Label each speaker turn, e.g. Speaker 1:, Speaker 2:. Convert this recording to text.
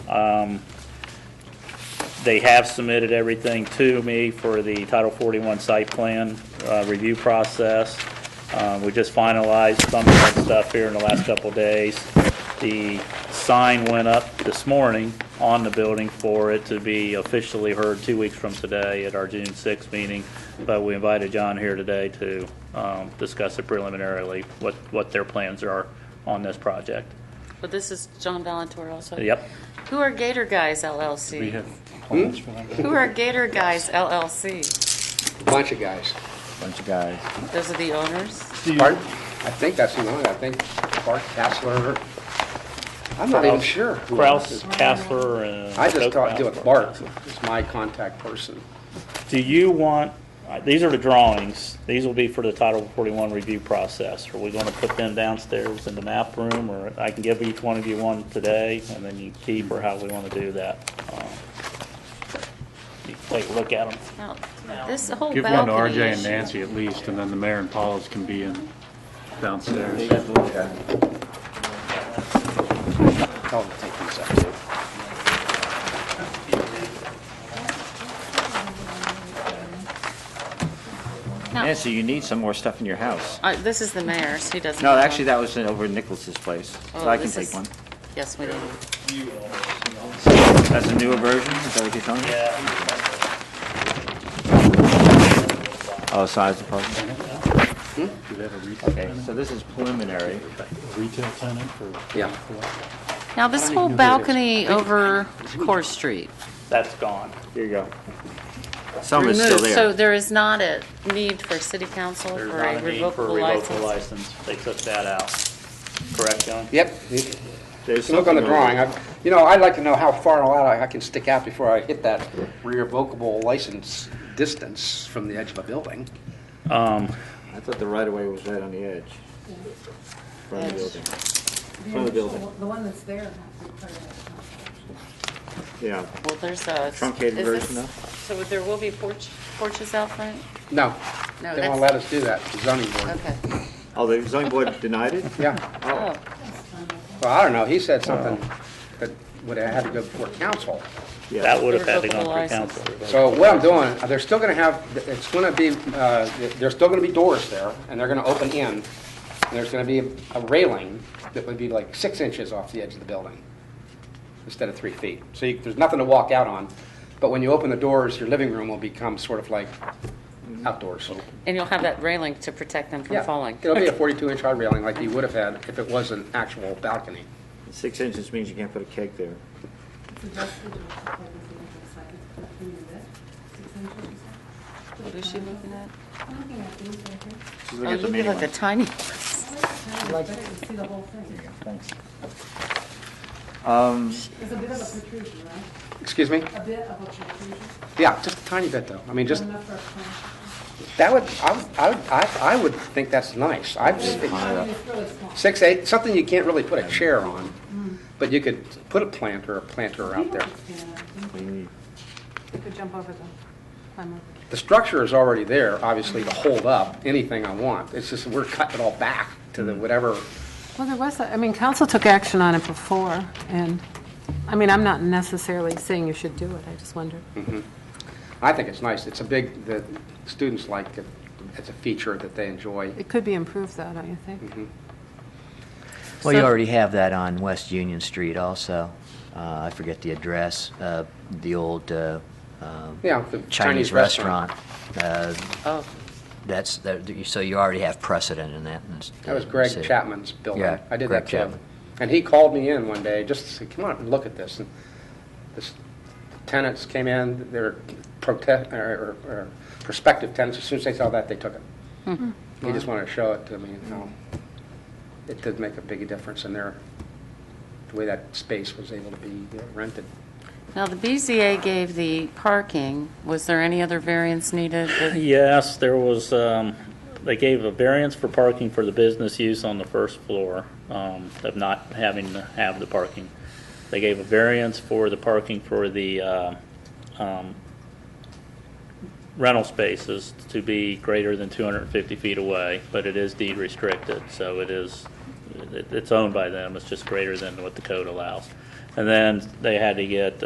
Speaker 1: Um, They have submitted everything to me for the Title 41 site plan uh, review process. Uh, We just finalized some of that stuff here in the last couple of days. The sign went up this morning on the building for it to be officially heard two weeks from today at our June 6th meeting, but we invited John here today to um, discuss it preliminarily, what, what their plans are on this project.
Speaker 2: But this is John Valentour also.
Speaker 1: Yep.
Speaker 2: Who are Gator Guys LLC?
Speaker 3: We have plans for them.
Speaker 2: Who are Gator Guys LLC?
Speaker 4: Bunch of guys.
Speaker 5: bunch of guys.
Speaker 2: Those are the owners?
Speaker 4: Bart, I think that's the one, I think Bart Kessler. I'm not even sure. who else
Speaker 1: Kraus,
Speaker 4: is-
Speaker 1: Castler, and.
Speaker 4: I just talked to
Speaker 1: Kraus.
Speaker 4: Bart, is my contact person.
Speaker 1: Do you want, uh, these are the drawings, these will be for the Title 41 review process. Are we going to put them downstairs in the map room, or I can give each one of you one today, and then you keep, or how we want to do that? Um, You can Take a look at them.
Speaker 2: Now, This whole
Speaker 3: Give one to
Speaker 2: balcony
Speaker 3: RJ and
Speaker 2: issue.
Speaker 3: Nancy at least, and then the mayor and Paula's can be in downstairs.
Speaker 4: Tell them to take these up. too.
Speaker 2: No,
Speaker 5: Nancy, you need some more stuff in your house.
Speaker 2: uh, this is the mayor's, he doesn't.
Speaker 5: No,
Speaker 2: have
Speaker 5: actually,
Speaker 2: one.
Speaker 5: that was in- over at Nicholas's place,
Speaker 2: Oh,
Speaker 5: so I can
Speaker 2: this
Speaker 5: take
Speaker 2: is-
Speaker 5: one.
Speaker 2: Yes, we do.
Speaker 5: That's a newer version, is that what you're telling me? Oh, size of apartment?
Speaker 2: Hmm?
Speaker 3: Do they have a retail
Speaker 5: Okay,
Speaker 3: tenant?
Speaker 5: so this is preliminary.
Speaker 3: Retail tenant for?
Speaker 4: Yeah.
Speaker 2: Now, this whole balcony over Core Street.
Speaker 1: That's gone.
Speaker 5: Here you go. Some is still
Speaker 2: Removed. So
Speaker 5: there.
Speaker 2: there is not a need for city council
Speaker 1: There's
Speaker 2: for
Speaker 1: not
Speaker 2: a
Speaker 1: a need for a
Speaker 2: revocable
Speaker 1: revocable
Speaker 2: license.
Speaker 1: license. They took that out. Correct, John?
Speaker 4: Yep, you
Speaker 5: There's
Speaker 4: look on
Speaker 5: something
Speaker 4: the
Speaker 5: over
Speaker 4: drawing,
Speaker 5: there.
Speaker 4: I, you know, I'd like to know how far out I I can stick out before I hit that revocable license distance from the edge of a building.
Speaker 1: Um,
Speaker 5: I thought the right-of-way was right on the edge. Front of the building. Front of the building,
Speaker 6: The one that's there has to be part of it.
Speaker 5: yeah.
Speaker 2: Well, there's a.
Speaker 5: Truncated
Speaker 2: is
Speaker 5: version
Speaker 2: this- So there will be porch, porches out front?
Speaker 4: No,
Speaker 2: No,
Speaker 4: they
Speaker 2: that's-
Speaker 4: won't let us do that, the zoning board.
Speaker 2: Okay.
Speaker 5: Oh, the zoning board denied it?
Speaker 4: Yeah,
Speaker 2: Oh,
Speaker 4: well, I don't know, he said something that would have had to go before council.
Speaker 5: Yeah.
Speaker 1: That would have had to go
Speaker 2: Revocable
Speaker 1: through
Speaker 2: license.
Speaker 1: council.
Speaker 4: So what I'm doing, uh, they're still going to have, it's going to be, uh, there's still going to be doors there, and they're going to open in, and there's going to be a railing that would be like six inches off the edge of the building instead of three feet. So you- there's nothing to walk out on, but when you open the doors, your living room will become sort of like outdoors.
Speaker 2: and you'll have that railing to protect them from
Speaker 4: Yeah,
Speaker 2: falling.
Speaker 4: It'll be a 42-inch high railing like you would have had if it was an actual balcony.
Speaker 5: Six inches means you can't put a keg there.
Speaker 2: Oh,
Speaker 6: It's adjusted to the size of the unit, six inches or so.
Speaker 2: What is she looking at?
Speaker 6: I'm looking at these right here.
Speaker 5: She's
Speaker 2: Oh,
Speaker 5: looking at the
Speaker 2: you
Speaker 5: main
Speaker 2: look like a
Speaker 5: one.
Speaker 2: tiny.
Speaker 6: I like the time, but I can see the whole thing.
Speaker 5: Um,
Speaker 6: There's a bit of a protrusion, right?
Speaker 4: Excuse me?
Speaker 6: A bit of a protrusion,
Speaker 4: Yeah, just a tiny bit though. I mean, just,
Speaker 6: enough for a plan.
Speaker 4: that would, I would, I would- I I would think that's nice. I've, it's-
Speaker 6: I mean, it's really small.
Speaker 4: Six, eight, something you can't really put a chair on, but you could put a plant or a planter out there.
Speaker 6: You could jump over them, climb over.
Speaker 4: The structure is already there, obviously, to hold up anything I want. It's just, we're cutting it all back to the whatever.
Speaker 6: Well, there was, a- I mean, council took action on it before, and, I mean, I'm not necessarily saying you should do it, I just wonder.
Speaker 4: Mm-hmm. I think it's nice. It's a big, the students like it. It's a feature that they enjoy.
Speaker 6: It could be improved though, don't you think?
Speaker 4: Mm-hmm.
Speaker 7: Well, you
Speaker 2: So-
Speaker 7: already have that on West Union Street also. Uh, I forget the address, uh, the old uh, um,
Speaker 4: Yeah, the
Speaker 7: Chinese
Speaker 4: Chinese restaurant.
Speaker 7: restaurant. Uh,
Speaker 2: Oh,
Speaker 7: That's, that- so you already have precedent in that. in this-
Speaker 4: That was Greg
Speaker 7: city.
Speaker 4: Chapman's building.
Speaker 7: Yeah,
Speaker 4: I did
Speaker 7: Greg
Speaker 4: that to him.
Speaker 7: Chapman.
Speaker 4: And he called me in one day just to say, come on, and look at this. And this tenants came in, they were protest, or, or- or prospective tenants, as soon as they saw that, they took it. He just wanted to show it to me and how it did make a big difference in their, the way that space was able to be rented.
Speaker 2: now the BZA gave the parking. Was there any other variance needed? with-
Speaker 1: Yes, there was, um, they gave a variance for parking for the business use on the first floor, um, of not having to have the parking. They gave a variance for the parking for the, uh, um, rental spaces to be greater than 250 feet away, but it is deed restricted, so it is, it- it's owned by them, it's just greater than what the code allows. And then they had to get